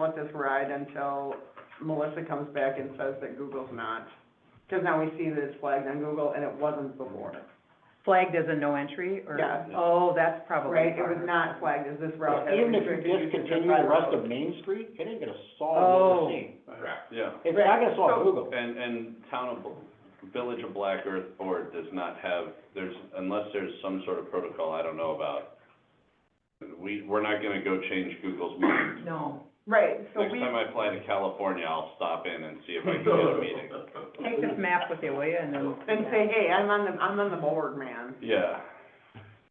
let this ride until Melissa comes back and says that Google's not. Because now we see that it's flagged on Google and it wasn't before, Flagged as a no entry, or? Yeah. Oh, that's probably. right? It was harder. not flagged as this route has Even if you restricted usage of discontinue private the rest roads. of Main Street, it ain't gonna solve what Oh. we're seeing. Correct. Yeah, It's not gonna solve So- Google. and, and town of, Village of Black Earth Board does not have, there's, unless there's some sort of protocol I don't know about, we, we're not gonna go change Google's mind. No. Right, so Next we time I fly to California, I'll stop in and see if I can get a meeting. Take this map with you, will you, and then. then say, hey, I'm on the, I'm on the board, man. Yeah,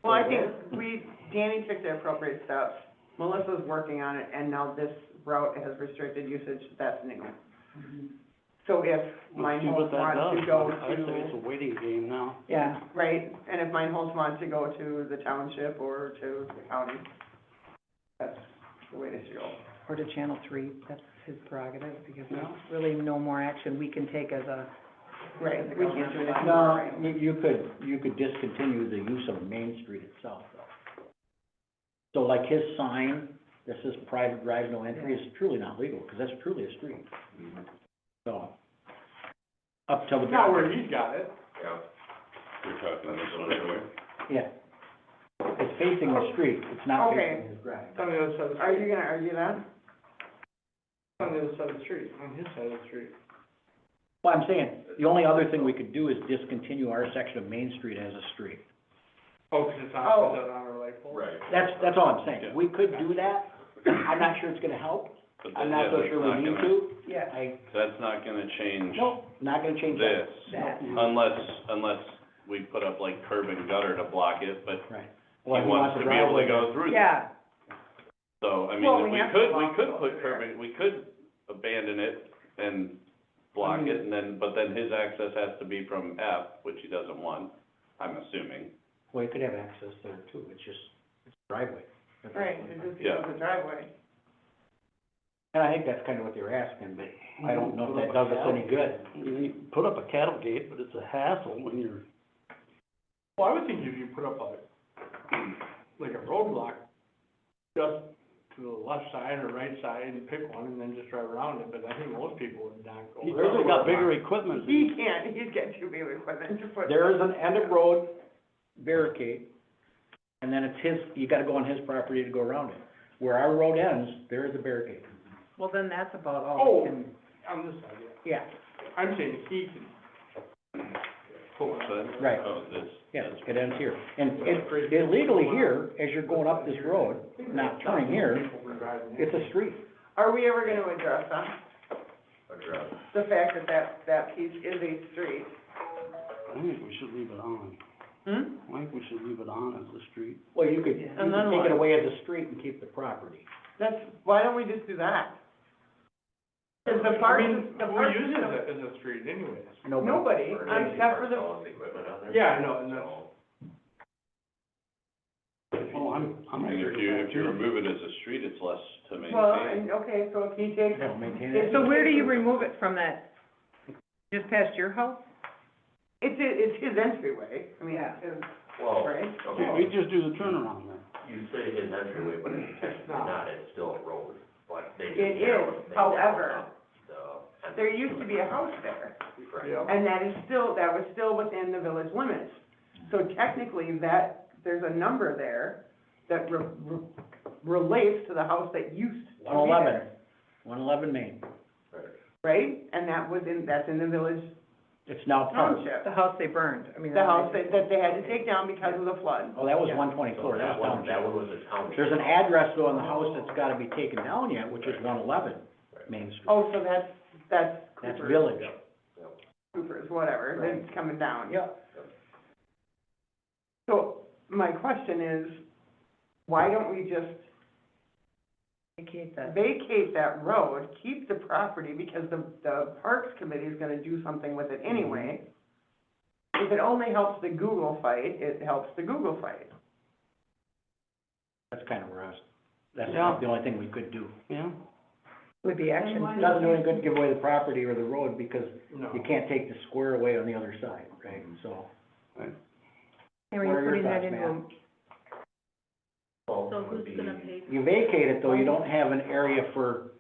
Well, I think Mm-hmm. we, Danny took the appropriate steps, Melissa's working on it, and now this route has restricted usage, that's new. Mm-hmm. So if Meinholz wants to go to, a waiting game now. Yeah, right, and if Meinholz wants to go to the township or to the county, that's the way to go. or to Channel Three, that's his prerogative, because there's really no more action we can take as a, Right, we can't do that. No, you, you could, you could discontinue the use of Main Street itself, though. So like his sign, this is private drive, no entry, is truly not legal, because that's truly a street. So, up till the. Not where he's got it. you're talking this one anyway. Yeah. It's facing the street, it's not Okay. facing his drive. It's on the other side of the Are street. you gonna argue that? It's on the other side of the street, on his side of the street. Well, I'm saying, the only other thing we could do is discontinue our section of Main Street as a street. Oh, 'cause it's on, Oh. it's on our light pole. Right. That's, that's all I'm Yeah. saying. We could do that. I'm not sure it's gonna help. But that- I'm yeah, not so that's sure not we need gonna- to. yeah, I, That's not gonna change no, not gonna change that. this, that, unless, unless we put up like curb and gutter to block it, but Right. he wants to be able to go through that. yeah, So, I Well, mean, we we have to could, we block could it put over curb, there. in- we could abandon it and block Mm-hmm. it, and then, but then his access has to be from F, which he doesn't want, I'm assuming. Well, you could have access there too, it's just, it's driveway. That's all. Right, it just Yeah. becomes a driveway. And I think that's kinda what they were asking, but I don't know if that does us any good. You put up a cattle gate, but it's a hassle when you're, Well, I would think if you put up a, like a roadblock just to the left side or right side and pick one and then just drive around it, but I think most people would not go. you've there. also got bigger equipment. He can't, he's got too big equipment to put. There is an end of road barricade, and then it's his, you gotta go on his property to go around it. Where our road ends, there is a barricade. well, then that's about all Oh, we can, on this side, yeah. Yeah. I'm saying he can. So that- Right. Oh, this, Yeah, it ends here. And it, it legally uh, here, as you're going up this road, not turning here, People were driving in. it's a street. Are we ever gonna address that? the fact that that, that piece is a street. I think we should leave it on. Hmm? I think we should leave it on as a street. Well, you could, you And then could take what? it away as a street and keep the property. That's, why don't we just do that? Cause the park, I mean, the we park. use it as a, as a street anyways. Nobody, um, except for the, Yeah, I know, and that's. Oh, I'm, I'm. and if you, if you remove it as a street, it's less to well, maintain. and, okay, so if he takes, That'll maintain it. so where do you remove it from that? Just past your house? it's, his- it's his entryway, I mean, Yeah. it's his, Well, right? We okay, just do the turnaround then. you say his entryway, but it's technically not, it's still a road, but they just. It narrowed- is, they narrowed however. up the- There used to be a house there, Right. Yeah. and that is still, that was still within the village limits. So technically, that, there's a number there that re- re- relates to the house that used to be there. One eleven, one eleven Main. Right, and that was in, that's in the village It's Oh, now park. township. The house they burned, I mean. The house that, that they had to take down because of the flood. Oh, that was Yeah. one So twenty-four, that that's one, that down. one was a township. There's an address though on the house that's gotta be taken down yet, which is one eleven Main Street. Oh, so that's, that's That's Cooper's. village. Cooper's, whatever, Right. that's coming down. Yeah. So my question is, why don't we just Vacate that. vacate that road, keep the property, because the, the Parks Committee is gonna do something with it anyway. If it only helps the Google fight, it helps the Google fight. That's kinda where I was, that's Yeah. the only thing we could do. Yeah? Would be action. It Doesn't do any good to give away the property or the road because No. you can't take the square away on the other side, right? So, Henry, What you're are your putting that thoughts, into, ma'am? a- So who's gonna pay you vacate it though, you don't have an area for